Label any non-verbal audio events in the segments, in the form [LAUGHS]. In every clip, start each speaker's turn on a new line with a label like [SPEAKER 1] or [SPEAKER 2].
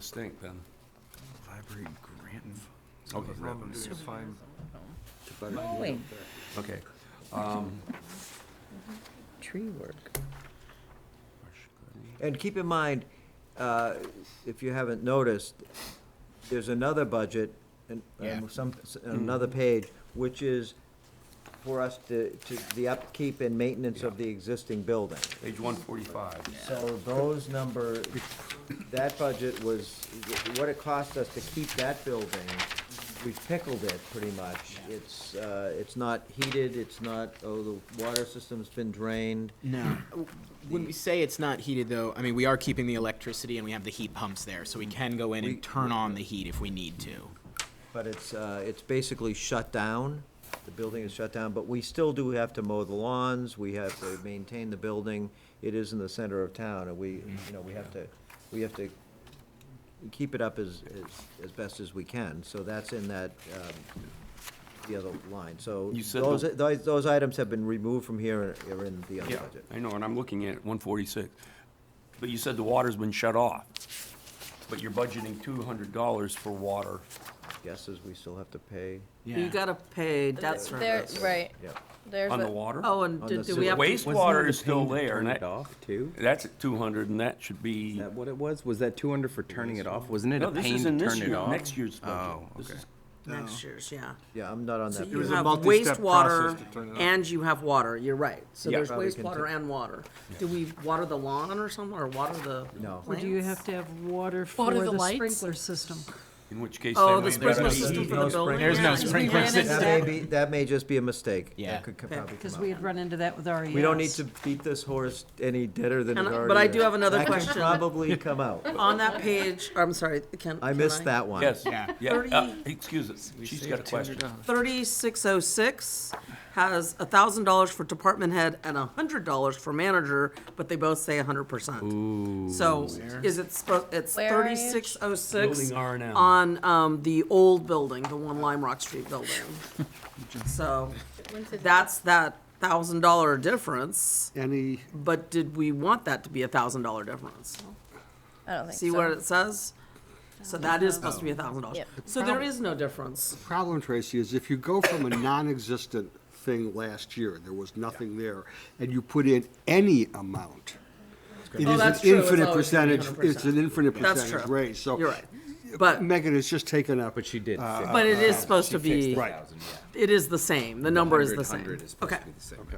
[SPEAKER 1] Distinct then. Oh,
[SPEAKER 2] Library grant.
[SPEAKER 1] Okay.
[SPEAKER 2] Revenue is fine.
[SPEAKER 1] It's better to do
[SPEAKER 3] Mowing,
[SPEAKER 1] that. Okay. Um,
[SPEAKER 3] tree work.
[SPEAKER 4] And keep in mind, uh, if you haven't noticed, there's another budget, and, and some, s- another page, which is for us to, to, the upkeep and maintenance of the existing building.
[SPEAKER 1] Page one forty-five.
[SPEAKER 4] So those number, that budget was, what it cost us to keep that building, we pickled it pretty much. It's, uh, it's not heated, it's not, oh, the water system's been drained.
[SPEAKER 5] No. When we say it's not heated, though, I mean, we are keeping the electricity and we have the heat pumps there, so we can go in and turn on the heat if we need to.
[SPEAKER 4] But it's, uh, it's basically shut down, the building is shut down, but we still do have to mow the lawns, we have to maintain the building. It is in the center of town, and we, you know, we have to, we have to keep it up as, as, as best as we can, so that's in that, um, the other line, so.
[SPEAKER 1] You said
[SPEAKER 4] Those,
[SPEAKER 1] the-
[SPEAKER 4] those, those items have been removed from here and are in the other
[SPEAKER 1] Yeah,
[SPEAKER 4] budget.
[SPEAKER 1] I know, and I'm looking at one forty-six. But you said the water's been shut off. But you're budgeting two hundred dollars for water.
[SPEAKER 4] Guesses we still have to pay,
[SPEAKER 6] You gotta pay debt
[SPEAKER 7] There,
[SPEAKER 6] service.
[SPEAKER 7] right,
[SPEAKER 4] yeah.
[SPEAKER 7] there's
[SPEAKER 1] On the
[SPEAKER 7] what-
[SPEAKER 1] water?
[SPEAKER 6] Oh, and
[SPEAKER 4] On
[SPEAKER 6] do
[SPEAKER 4] the
[SPEAKER 6] do we
[SPEAKER 4] sewer.
[SPEAKER 6] have, to-
[SPEAKER 1] Wastewater is still there, and that,
[SPEAKER 2] off too?
[SPEAKER 1] that's at two hundred, and that should
[SPEAKER 2] Is
[SPEAKER 1] be,
[SPEAKER 2] that what it was? Was that two hundred for turning it off? Wasn't it
[SPEAKER 1] no,
[SPEAKER 2] a
[SPEAKER 1] this
[SPEAKER 2] pain to
[SPEAKER 1] is
[SPEAKER 2] turn
[SPEAKER 1] in
[SPEAKER 2] it
[SPEAKER 1] this year,
[SPEAKER 2] off?
[SPEAKER 1] next year's budget.
[SPEAKER 2] Oh,
[SPEAKER 1] This
[SPEAKER 2] okay.
[SPEAKER 1] is-
[SPEAKER 6] next year's, yeah.
[SPEAKER 4] Yeah, I'm not on
[SPEAKER 6] So
[SPEAKER 4] that.
[SPEAKER 6] you
[SPEAKER 4] page.
[SPEAKER 6] have
[SPEAKER 2] multi-step process
[SPEAKER 6] wastewater
[SPEAKER 2] to turn it off.
[SPEAKER 6] and you have water, you're right. So
[SPEAKER 1] Yeah.
[SPEAKER 6] there's
[SPEAKER 4] Probably can
[SPEAKER 6] wastewater
[SPEAKER 4] take-
[SPEAKER 6] and water. Do we water the lawn or something, or water the
[SPEAKER 4] No.
[SPEAKER 8] Or do you
[SPEAKER 6] plants?
[SPEAKER 8] have to have water for
[SPEAKER 7] Water the
[SPEAKER 8] the
[SPEAKER 7] lights?
[SPEAKER 8] sprinkler system?
[SPEAKER 1] In which case.
[SPEAKER 6] Oh,
[SPEAKER 1] then
[SPEAKER 6] the
[SPEAKER 1] we-
[SPEAKER 6] sprinkler
[SPEAKER 4] no
[SPEAKER 6] system for
[SPEAKER 4] sprinkler.
[SPEAKER 6] the building?
[SPEAKER 5] There's no
[SPEAKER 6] Yeah.
[SPEAKER 5] sprinkler
[SPEAKER 7] ran into
[SPEAKER 5] system.
[SPEAKER 4] That may be, that may just be a mistake. That
[SPEAKER 5] Yeah.
[SPEAKER 4] could co- probably come
[SPEAKER 8] Because
[SPEAKER 4] out.
[SPEAKER 8] we had run into that with E RES.
[SPEAKER 4] We don't need to beat this horse any deader than it
[SPEAKER 6] Can I-
[SPEAKER 4] already
[SPEAKER 6] but I
[SPEAKER 4] is.
[SPEAKER 6] do have another
[SPEAKER 4] That
[SPEAKER 6] question.
[SPEAKER 4] can probably
[SPEAKER 6] [LAUGHS]
[SPEAKER 4] come out.
[SPEAKER 6] On that page, I'm sorry, can.
[SPEAKER 4] I
[SPEAKER 6] can
[SPEAKER 4] missed that one.
[SPEAKER 1] Yes,
[SPEAKER 5] Yeah.
[SPEAKER 1] yeah, uh,
[SPEAKER 6] Thirty-
[SPEAKER 1] excuse us, she's got a question.
[SPEAKER 6] 3606 has $1,000 for department head and $100 for manager, but they both say 100%. So is it, spo- it's
[SPEAKER 7] Where are you?
[SPEAKER 6] 3606
[SPEAKER 1] Building R and M.
[SPEAKER 6] on um, the old building, the one Lime Rock Street building.
[SPEAKER 1] [LAUGHS]
[SPEAKER 6] So that's that $1,000 difference,
[SPEAKER 9] Any,
[SPEAKER 6] but did we want that to be a $1,000 difference?
[SPEAKER 7] I don't think
[SPEAKER 6] See what
[SPEAKER 7] so.
[SPEAKER 6] it says? So that is supposed to be $1,000.
[SPEAKER 7] Yep.
[SPEAKER 6] So there is no difference.
[SPEAKER 9] problem, Tracy, is if you go from a [COUGHS] non-existent thing last year, there was nothing there, and you put in any amount, it
[SPEAKER 6] Oh,
[SPEAKER 9] is an
[SPEAKER 6] that's true. It's
[SPEAKER 9] infinite
[SPEAKER 6] always gonna be
[SPEAKER 9] percentage, it's an
[SPEAKER 6] 100%.
[SPEAKER 9] infinite
[SPEAKER 6] That's
[SPEAKER 9] percentage
[SPEAKER 6] true.
[SPEAKER 9] raise, so.
[SPEAKER 6] You're right. But,
[SPEAKER 9] Megan has just taken up. But she
[SPEAKER 2] did
[SPEAKER 6] Uh, but it is supposed to be,
[SPEAKER 9] Right.
[SPEAKER 6] it is the same. The number is the same. Okay.
[SPEAKER 2] Okay.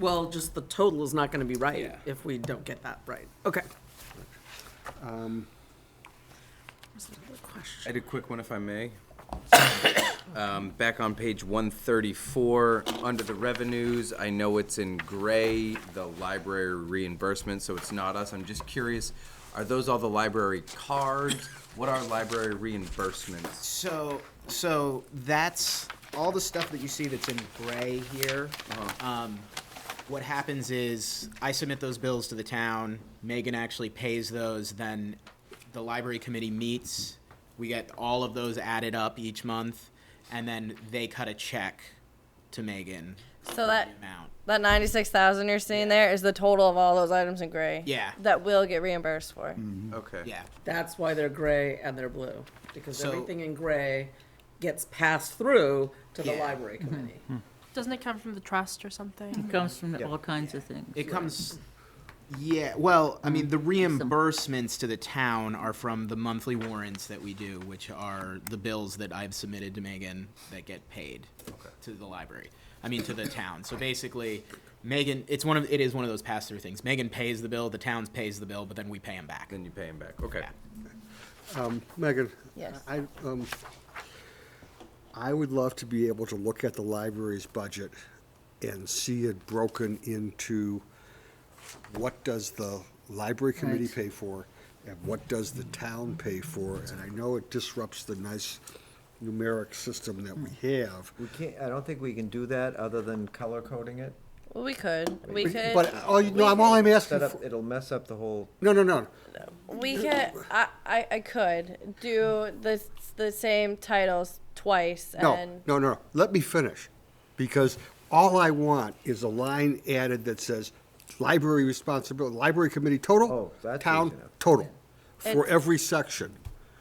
[SPEAKER 6] Well, just the total is not going to be right if we don't get that right. Okay. Was there another
[SPEAKER 2] I
[SPEAKER 6] question?
[SPEAKER 2] had a quick one if I may. [COUGHS] Um, back on page one thirty-four, under the revenues, I know it's in gray, the library reimbursement, so it's not us. I'm just curious, are those all the library cards? What are library reimbursements?
[SPEAKER 5] So, so that's all the stuff that you see that's in gray here. Um, what happens is I submit those bills to the town. Megan actually pays those. Then the library committee meets. We get all of those added up each month, and then they cut a check to Megan.
[SPEAKER 7] So that,
[SPEAKER 5] Amount.
[SPEAKER 7] that ninety-six thousand you're seeing there is the total of all those items in gray.
[SPEAKER 5] Yeah.
[SPEAKER 7] That will get reimbursed for.
[SPEAKER 9] Mm.
[SPEAKER 2] Okay.
[SPEAKER 5] Yeah.
[SPEAKER 6] That's why they're gray and they're blue, because
[SPEAKER 5] So-
[SPEAKER 6] everything in gray gets passed through to the
[SPEAKER 5] Yeah.
[SPEAKER 6] library committee.
[SPEAKER 10] Doesn't it come from the trust or something?
[SPEAKER 3] Comes from all kinds of things.
[SPEAKER 5] It comes. Yeah, well, I mean, the reimbursements to the town are from the monthly warrants that we do, which are the bills that I've submitted to Megan that get paid to the library. I mean, to the town. So basically, Megan, it's one of it is one of those pass through things. Megan pays the bill, the town's pays the bill, but then we pay them back.
[SPEAKER 2] Then you pay them back, okay.
[SPEAKER 9] Megan?
[SPEAKER 7] Yes.
[SPEAKER 9] I, um, I would love to be able to look at the library's budget and see it broken into what does the library committee pay for and what does the town pay for? And I know it disrupts the nice numeric system that we
[SPEAKER 7] Mm.
[SPEAKER 9] have.
[SPEAKER 4] We can't, I don't think we can do that other than color coding it.
[SPEAKER 7] [LAUGHS] Well, we could, we could.
[SPEAKER 9] But, all you, no,
[SPEAKER 7] we
[SPEAKER 9] I'm, all
[SPEAKER 7] could-
[SPEAKER 9] I'm asking
[SPEAKER 4] Set up,
[SPEAKER 9] for,
[SPEAKER 4] it'll mess up the whole,
[SPEAKER 9] no, no, no.
[SPEAKER 7] We could, I, I, I could do the, the same titles twice
[SPEAKER 9] No,
[SPEAKER 7] and.
[SPEAKER 9] no, no, let me finish, because all I want is a line added that says, library responsibility, library committee
[SPEAKER 4] Oh,
[SPEAKER 9] total,
[SPEAKER 4] that's easy
[SPEAKER 9] town
[SPEAKER 4] enough.
[SPEAKER 9] total, for
[SPEAKER 7] It's-
[SPEAKER 9] every section.